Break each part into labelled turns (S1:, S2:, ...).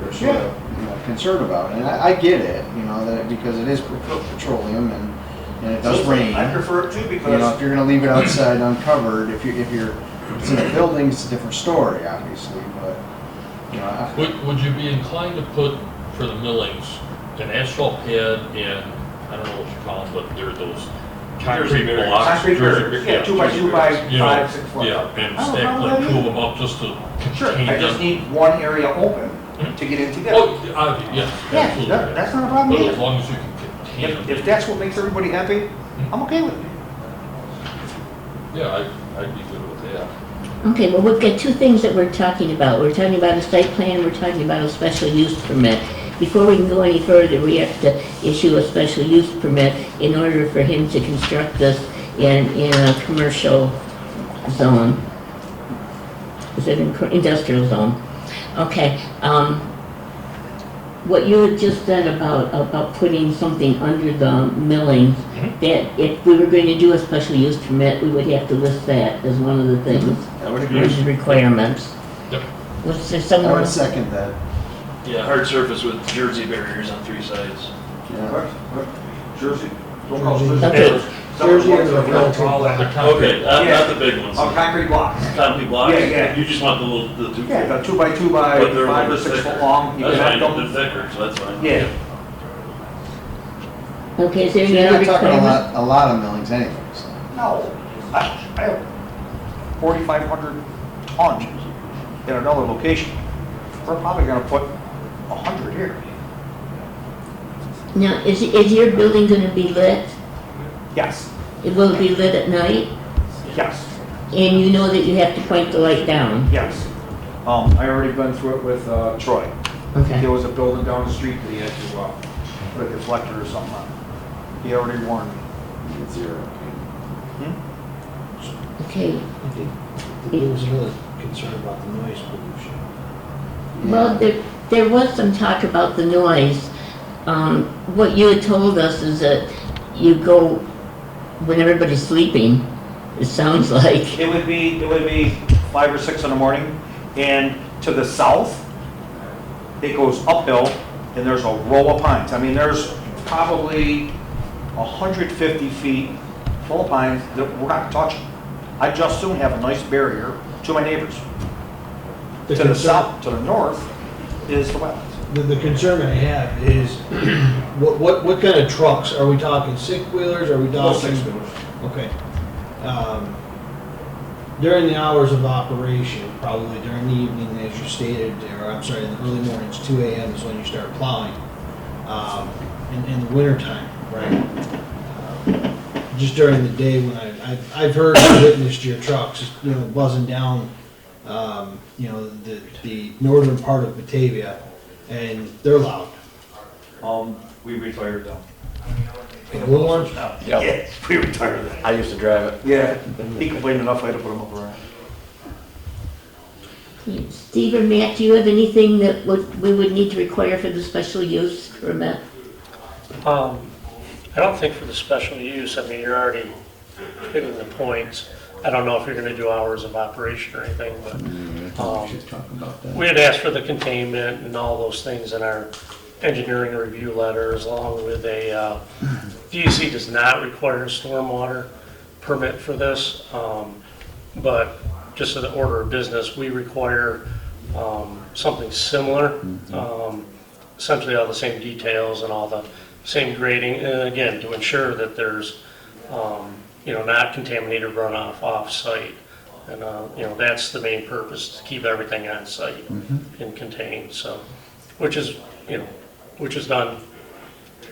S1: we're sort of you know, concerned about. And I, I get it, you know, that because it is pet- petroleum and, and it does rain.
S2: I prefer it too
S1: You know, if
S2: because
S1: you're gonna leave it outside uncovered, if you, if you're, if it's in a building, it's a different story, obviously, but, you know, I-
S3: Would, would you be inclined to put for the millings, an asphalt pad and, I don't know what you call them, but they're those concrete
S4: barriers.
S3: blocks.
S2: Concrete
S3: jersey-
S2: barriers, yeah, two by
S3: jersey
S2: two by
S3: barriers, you know,
S2: five, six foot.
S3: Yeah, and
S2: I don't
S3: stack
S2: know
S3: like
S2: what
S3: two
S2: it
S3: of them up just to
S2: sure,
S3: contain
S2: I just
S3: them.
S2: need one area
S4: Mm-hmm.
S2: open to get in together.
S3: Oh, obvi- yes,
S2: Yeah,
S3: absolutely.
S2: that- that's not a
S3: But
S2: problem
S3: as
S2: either.
S3: long as you can contain them.
S2: If, if that's what makes everybody happy,
S4: Mm-hmm.
S2: I'm okay with it.
S3: Yeah, I, I'd be good with that.
S5: Okay, well, we've got two things that we're talking about. We're talking about a site plan, we're talking about a special use permit. Before we can go any further, we have to issue a special use permit in order for him to construct this in, in a commercial zone. Is it in, industrial zone? Okay, um, what you had just said about, about putting something under the milling, that if we were going to do a special use permit, we would have to list that as one of the things.
S1: I would agree.
S5: There's requirements.
S3: Yep.
S5: Was there
S1: I
S5: someone,
S1: would second that,
S4: Yeah, hard surface with jersey barriers on three sides.
S1: yeah.
S2: Jersey, don't call it Jersey.
S5: Okay.
S2: Jersey is a
S6: real
S3: They're concrete blocks.
S4: Okay, not, not the big ones,
S2: On concrete blocks.
S4: concrete blocks.
S2: Yeah, yeah.
S4: You just want the little, the two.
S2: Yeah, about two by two by
S4: But they're a
S2: five or
S4: little bit
S2: six
S4: thicker.
S2: foot long. You
S4: That's
S2: can have
S4: fine,
S2: them-
S4: they're thicker, so that's fine.
S2: Yeah,
S5: okay, is there
S1: So
S5: any
S1: You're
S5: other
S1: not talking a
S5: requirement?
S1: lot, a lot of millings anyway, so.
S2: no, I, I have forty-five hundred tons in another location. We're probably gonna put a hundred here.
S5: Now, is, is your building gonna be lit?
S2: Yes,
S5: It will be lit at night,
S2: yes.
S5: and you know that you have to point the light down?
S2: Yes. Um, I already been through it with, uh, Troy.
S5: Okay.
S2: There was a building down the street that he had to, uh, put a deflector or something on. He already warned me.
S1: It's zero.
S5: Okay,
S6: He was really concerned about the noise pollution.
S5: well, there, there was some talk about the noise. Um, what you had told us is that you go when everybody's sleeping, it sounds like.
S2: It would be, it would be five or six in the morning, and to the south, it goes uphill, and there's a row of pines. I mean, there's probably 150 feet full of pines that we're not touching. I just soon have a nice barrier to my neighbors. To the
S6: concern-
S2: south, to the north is the wetlands.
S6: The, the concern I have is, what, what, what kind of trucks? Are we talking six-wheelers, are we
S2: Those
S6: talking?
S2: six doors.
S6: Okay. Um, During the hours of operation, probably during the evening, as you stated, or I'm sorry, in the early mornings, two AM is when you start plowing. Um, In, in the wintertime, right? Um, Just during the day when I, I've, I've heard and witnessed your trucks, you know, buzzing down, um, you know, the, the northern part of Batavia, and they're loud.
S2: Um, we retired them.
S6: The little ones,
S2: Yeah, we retired them.
S7: I used to drive it.
S2: Yeah, he complained enough, I had to put him up around.
S5: Steve or Matt, do you have anything that would, we would need to require for the special use permit?
S8: Um, I don't think for the special use, I mean, you're already hitting the points. I don't know if you're gonna do hours of operation or anything, but, um, we had asked for the containment and all those things in our engineering review letters, along with a, uh, DEC does not require a stormwater permit for this, um, but just in the order of business, we require, um, something similar. Um, essentially all the same details and all the same grading, and again, to ensure that there's, um, you know, not contaminated runoff off-site. And, uh, you know, that's the main purpose, to keep everything on-site
S1: Mm-hmm.
S8: and contained, so, which is, you know, which is done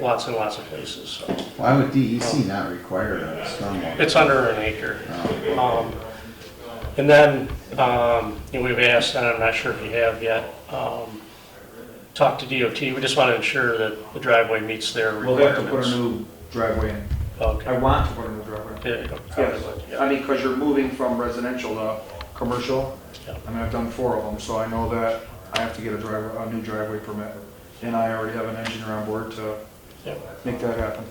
S8: lots and lots of places, so.
S1: Why would DEC not require a stormwater?
S8: It's under an acre. Um, And then, um, you know, we've asked, and I'm not sure if you have yet, um, talked to DOT. We just want to ensure that the driveway meets their
S2: We'll have to put a
S8: requirements.
S2: new driveway in. I
S8: Okay.
S2: want to put a new driveway in.
S8: Yeah, you probably would,
S2: Yes,
S8: yeah.
S2: I mean, because you're moving from residential to commercial.
S8: Yeah.
S2: I mean, I've done four of them, so I know that I have to get a driver, a new driveway permit. And I already have an engineer on board to
S8: Yeah.
S2: make that happen.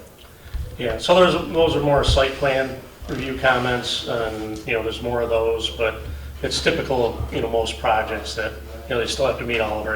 S8: Yeah, so there's, those are more site plan review comments, and, you know, there's more of those, but it's typical of, you know, most projects that, you know, they still have to meet all of our